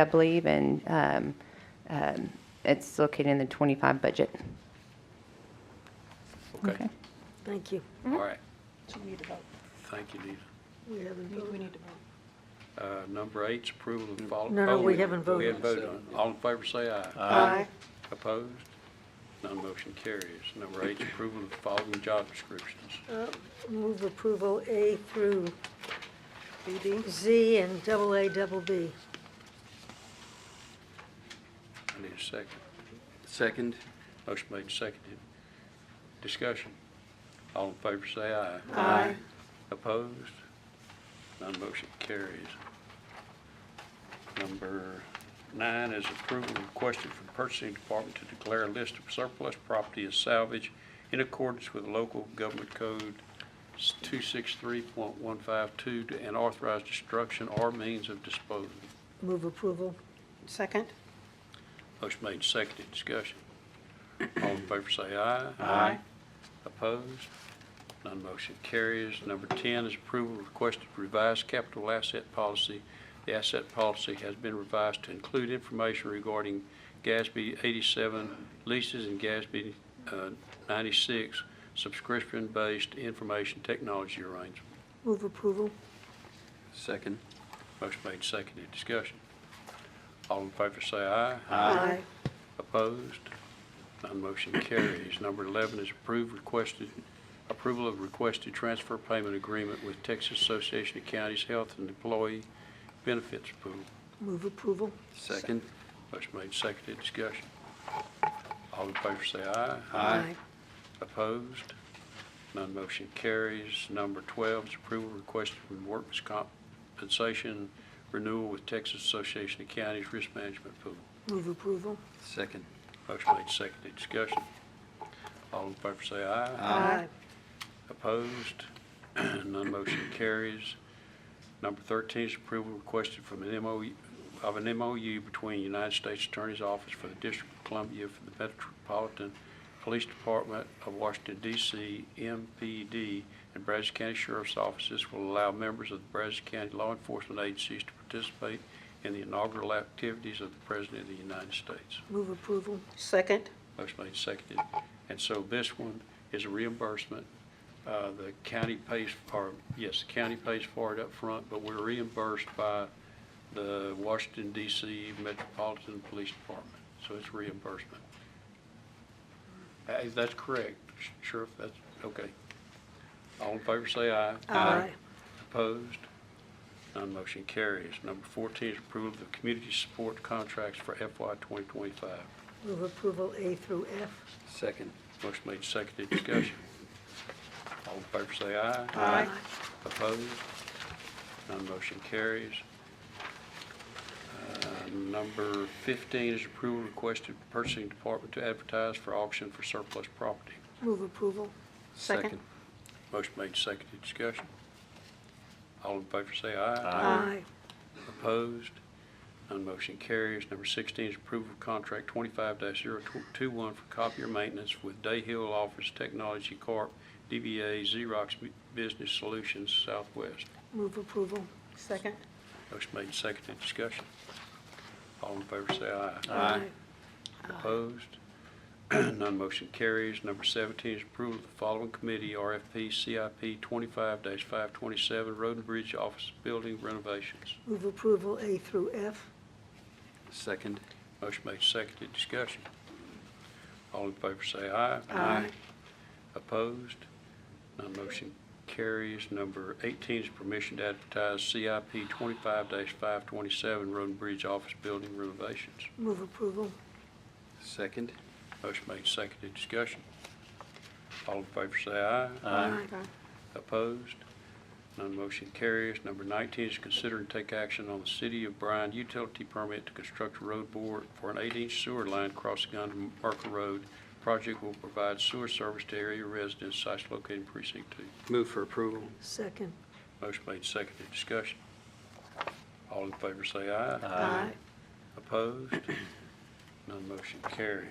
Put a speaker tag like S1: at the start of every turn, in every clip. S1: I believe, and um, um, it's located in the 25 budget.
S2: Okay,
S3: Thank you.
S2: all right.
S4: So we need to vote.
S2: Thank you, Nita.
S3: We haven't
S4: We
S3: voted.
S4: need to vote.
S2: Uh, Number eight's approval of Oh, follow.
S3: No, no, we haven't
S2: We
S3: voted.
S2: haven't voted on it. All in favor, say aye.
S3: Aye.
S2: Opposed? None motion carries. Number eight's approval of the following job descriptions.
S3: Move approval A through Z and double A, double B.
S2: I need a second.
S5: Second.
S2: Motion made and seconded. Discussion. All in favor, say aye.
S3: Aye.
S2: Opposed? None motion carries. Number nine is approval requested from purchasing department to declare a list of surplus property as salvage in accordance with local government code 263.152 and authorize destruction or means of disposal.
S3: Move approval.
S4: Second?
S2: Motion made, and seconded, discussion. All in favor say aye.
S4: Aye.
S2: Opposed? None motion carries. Number 10 is approval of requested revised capital asset policy. The asset policy has been revised to include information regarding GASB 87 leases and GASB uh, 96 subscription-based information technology arrangements.
S3: Move approval.
S5: Second.
S2: Motion made, and seconded, discussion. All in favor say aye.
S3: Aye.
S2: Opposed? None motion carries. Number 11 is approved requested, approval of requested transfer payment agreement with Texas Association of Counties Health and Employee Benefits Pool.
S3: Move approval.
S5: Second.
S2: Motion made, seconded, discussion. All in favor say aye.
S5: Aye.
S2: Opposed? None motion carries. Number 12 is approval requested from Workers' Compensation Renewal with Texas Association of Counties Risk Management Pool.
S3: Move approval.
S5: Second.
S2: Motion made, seconded, discussion. All in favor say aye.
S3: Aye.
S2: Opposed? None motion carries. Number 13 is approval requested from an MOU, of an MOU between United States Attorney's Office for the District of Columbia for the Metropolitan Police Department of Washington DC, MPD, and Brazos County Sheriff's Offices will allow members of the Brazos County law enforcement agencies to participate in the inaugural activities of the President of the United States.
S3: Move approval.
S4: Second?
S2: Motion made, seconded. And so this one is a reimbursement. Uh, The county pays, or, yes, the county pays for it up front, but we're reimbursed by the Washington DC Metropolitan Police Department. So it's reimbursement. Hey, That's correct, Sheriff, that's, okay. All in favor, say aye. Opposed? None motion carries. Number 14 is approval of community support contracts for FY 2025.
S3: Move approval A through F.
S5: Second.
S2: Motion made, seconded, discussion. All in favor say aye.
S4: Aye.
S2: Opposed? None motion carries. Uh, Number 15 is approval requested from purchasing department to advertise for auction for surplus property.
S3: Move approval.
S4: Second.
S2: Motion made, seconded, discussion. All in favor say aye.
S3: Aye.
S2: Opposed? None motion carries. Number 16 is approval of contract 25-021 for copier maintenance with Day Hill Office Technology Corp., DBA Xerox Business Solutions Southwest.
S3: Move approval.
S4: Second?
S2: Motion made, and seconded, discussion. All in favor say aye.
S5: Aye.
S2: Opposed? None motion carries. Number 17 is approval of the following committee, RFP CIP 25-527, Road and Bridge Office Building Renovations.
S3: Move approval A through F.
S5: Second.
S2: Motion made, seconded, discussion. All in favor say aye.
S5: Aye.
S2: Opposed? None motion carries. Number 18 is permission to advertise CIP 25-527 Road and Bridge Office Building renovations.
S3: Move approval.
S5: Second.
S2: Motion made, seconded, discussion. All in favor say aye.
S5: Aye.
S2: Opposed? None motion carries. Number 19 is consider and take action on the City of Bryan utility permit to construct a road board for an 8-inch sewer line crossing under Merker Road. Project will provide sewer service to area residents, sites located in precinct 2.
S5: Move for approval.
S3: Second.
S2: Motion made, seconded, discussion. All in favor say aye.
S3: Aye.
S2: Opposed? None motion carries.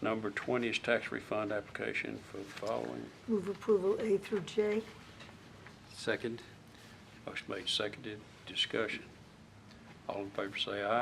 S2: Number 20 is tax refund application for the following.
S3: Move approval A through J.
S5: Second.
S2: Motion made, seconded, discussion. All in favor say aye.